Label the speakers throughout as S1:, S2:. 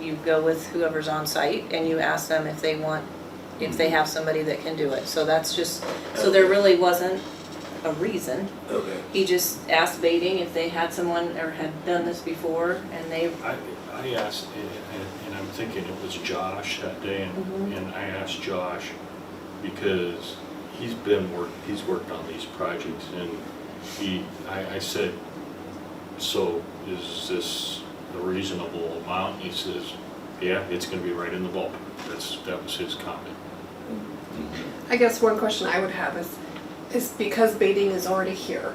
S1: you go with whoever's on site and you ask them if they want, if
S2: Mhm.
S1: they have somebody that can do it. So that's just, so there really wasn't a reason.
S2: Okay.
S1: He just asked Baiting if they had someone or had done this before and they,
S3: I, I asked, and- and- and I'm thinking it was Josh that day, and,
S1: Mhm.
S3: and I asked Josh, because he's been work, he's worked on these projects, and he, I, I said, so is this a reasonable amount? He says, yeah, it's gonna be right in the ballpark, that's, that was his comment.
S4: I guess one question I would have is, is because baiting is already here,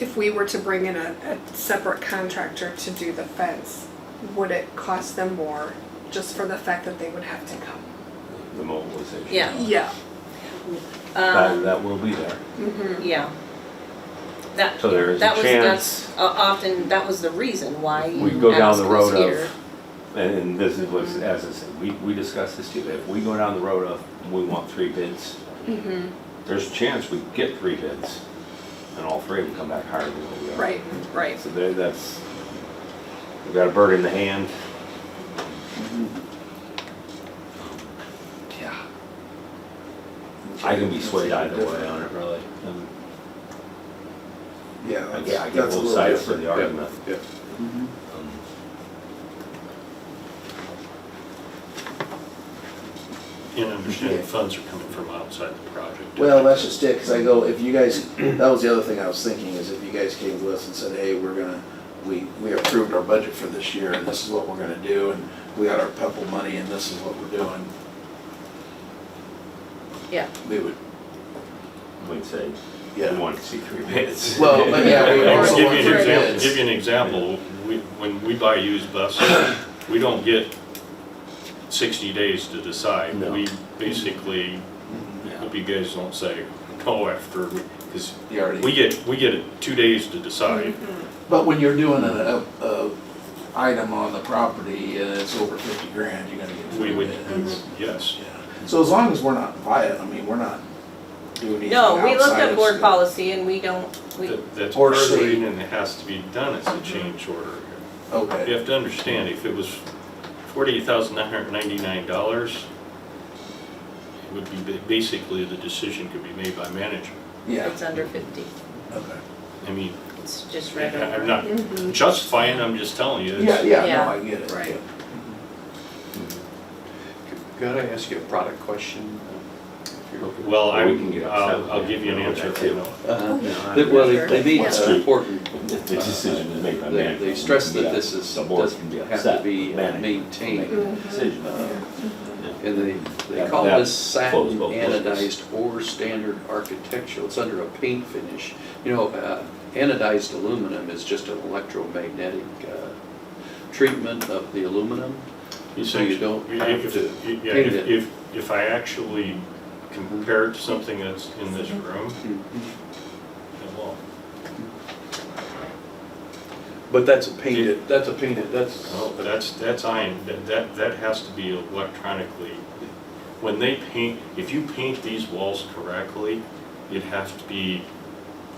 S4: if we were to bring in a, a separate contractor to do the fence, would it cost them more just for the fact that they would have to come?
S2: The mobilization.
S1: Yeah.
S4: Yeah.
S2: That,
S1: um,
S2: that will be there.
S4: Mm-hmm.
S1: yeah. That,
S2: So there is a
S1: that was,
S2: chance-
S1: that's o- often, that was the reason why you
S2: We go down
S1: asked
S2: the
S1: us
S2: road
S1: here.
S2: of, and- and this is what's, as I said, we, we discussed this too. If we go down the road of, we want three bids, there's a chance we get three bids, and all three of them come back higher than what we are.
S4: Right, right.
S2: So there, that's, we've got a bird in the hand. Yeah. I can be swayed either way on it, really. Um,
S5: Yeah.
S2: I
S5: that's-
S2: get, I get
S5: that's a
S2: both
S5: little
S2: sides for the
S5: different.
S2: argument.
S3: Yeah.
S2: Um,
S3: And understand the funds are coming from outside the project.
S5: Well, that's just it, because I go, if you guys, that was the other thing I was thinking, is if you guys came to us and said, hey, we're gonna, we, we approved our budget for this year, and this is what we're gonna do, and we got our PEPAL money, and this is what we're doing,
S1: Yeah,
S5: we would,
S2: We'd say, we
S5: yeah.
S2: want to see three bids.
S5: Well, but yeah, we
S3: I'll
S5: also
S3: give
S5: want
S3: you an
S5: three
S3: example,
S5: bids.
S3: give you an example, we, when we buy used buses, we don't get sixty days to decide.
S2: No.
S3: We basically,
S2: Yeah.
S5: Mm-hmm.
S3: hope you guys don't say, no after, because
S5: You already-
S3: we get, we get two days to decide.
S5: But when you're doing a, a, a item on the property, and it's over fifty grand, you're gonna get
S3: We
S5: three
S3: would,
S5: bids.
S3: yes.
S5: Yeah. So as long as we're not via, I mean, we're not doing anything
S1: no, we looked
S5: outside
S1: at
S5: of
S1: board
S5: scope.
S1: policy and we don't, we,
S3: That- That's
S5: Or
S3: part of the
S5: say-
S3: reason it has to be done as a change order.
S5: Okay.
S3: You have to understand, if it was forty thousand nine hundred ninety-nine dollars, it would be, ba- basically, the decision could be made by management.
S5: Yeah,
S1: it's under fifty,
S5: okay.
S3: I mean,
S1: it's just right over.
S3: I'm not
S4: Mm-hmm.
S3: justifying, I'm just telling you.
S5: Yeah,
S3: it's-
S5: yeah,
S1: Yeah.
S5: no, I get it.
S4: Right.
S6: Could I ask you a product question? Uh-huh.
S3: Well, I,
S2: Or we can get upset
S3: I'll,
S2: with
S3: I'll
S2: it.
S3: give you an
S2: Yeah,
S3: answer if
S2: too.
S3: you know.
S6: Uh,
S2: No,
S6: they-
S2: I'm-
S6: Well, they, they made
S2: Yeah.
S6: an important,
S2: The decision is made by
S6: they,
S2: management.
S6: they stressed
S2: Yeah.
S6: that this is,
S2: The board
S6: doesn't
S2: can be
S6: have
S2: upset
S6: to be uh,
S2: with management.
S6: maintained.
S2: Make uh, a Decision.
S6: And they, they
S2: That-
S6: call
S2: that
S6: this satin
S2: flows both ways.
S6: anodized or standard architectural, it's under a paint finish. You know, uh, anodized aluminum is just an electromagnetic, uh, treatment of the aluminum.
S3: You
S6: So
S3: said-
S6: you don't
S3: if-
S6: have
S3: if-
S6: to
S3: Yeah,
S6: paint
S3: if,
S6: it.
S3: if, if I actually compare it to something that's in this room, it won't.
S6: But that's a
S3: painted-
S6: That's a painted, that's.
S2: Oh.
S3: No, but that's, that's iron, that, that, that has to be electronically. When they paint, if you paint these walls correctly, it has to be,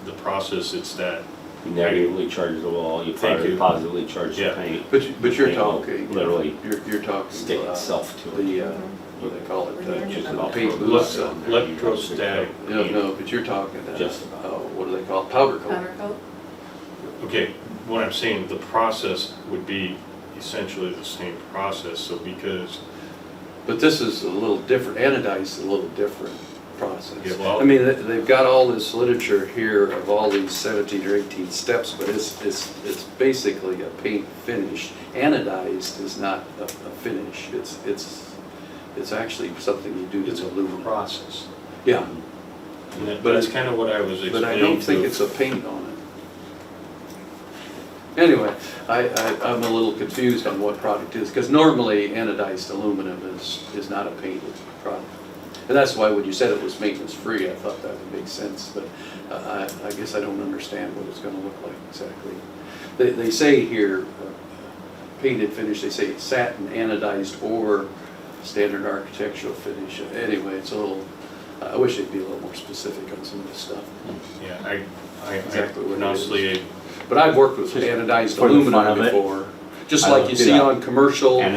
S3: the process, it's that,
S2: You negatively charge the wall, you
S3: Thank
S2: probably
S3: you.
S2: positively charge the
S3: Yeah.
S2: paint.
S6: But, you- but you're
S2: They will
S6: talking.
S2: literally
S6: You're, you're talking.
S2: Stick
S6: uh,
S2: itself to it.
S6: The, uh, what do they call it, the,
S2: Just
S6: the
S2: about
S6: paint
S2: for
S6: booths.
S2: look.
S6: uh,
S3: electrostatic.
S6: No, no, but you're talking, uh,
S2: Just about.
S6: oh, what do they call it, powder coat?
S7: Powder coat?
S3: Okay, what I'm saying, the process would be essentially the same process, so because,
S6: But this is a little different, anodized is a little different
S3: Yeah,
S6: process.
S3: well-
S6: I mean, they- they've got all this literature here of all these seventeen or eighteen steps, but it's, it's, it's basically a paint finish. Anodized is not a, a finish, it's, it's, it's actually something you do
S3: it's
S6: to
S3: a
S6: aluminum.
S3: process.
S6: Yeah,
S3: And that-
S6: But
S3: that's
S6: it-
S3: kind of what I was explaining.
S6: But I don't think
S3: to-
S6: it's a paint on it. Anyway, I, I, I'm a little confused on what product is, because normally anodized aluminum is, is not a painted product. And that's why when you said it was maintenance-free, I thought that would make sense, but uh, I, I guess I don't understand what it's gonna look like exactly. They, they say here, uh, painted finish, they say satin anodized or standard architectural finish. Anyway, it's a little, I wish they'd be a little more specific on some of this stuff.
S3: Yeah, I, I-
S6: Exactly what
S3: I,
S6: it
S3: honestly,
S6: But I've worked with anodized
S2: for the fun
S6: aluminum
S2: of it,
S6: before, just
S2: I
S6: like
S2: looked
S6: you
S2: it
S6: see
S2: up.
S6: on commercial
S2: And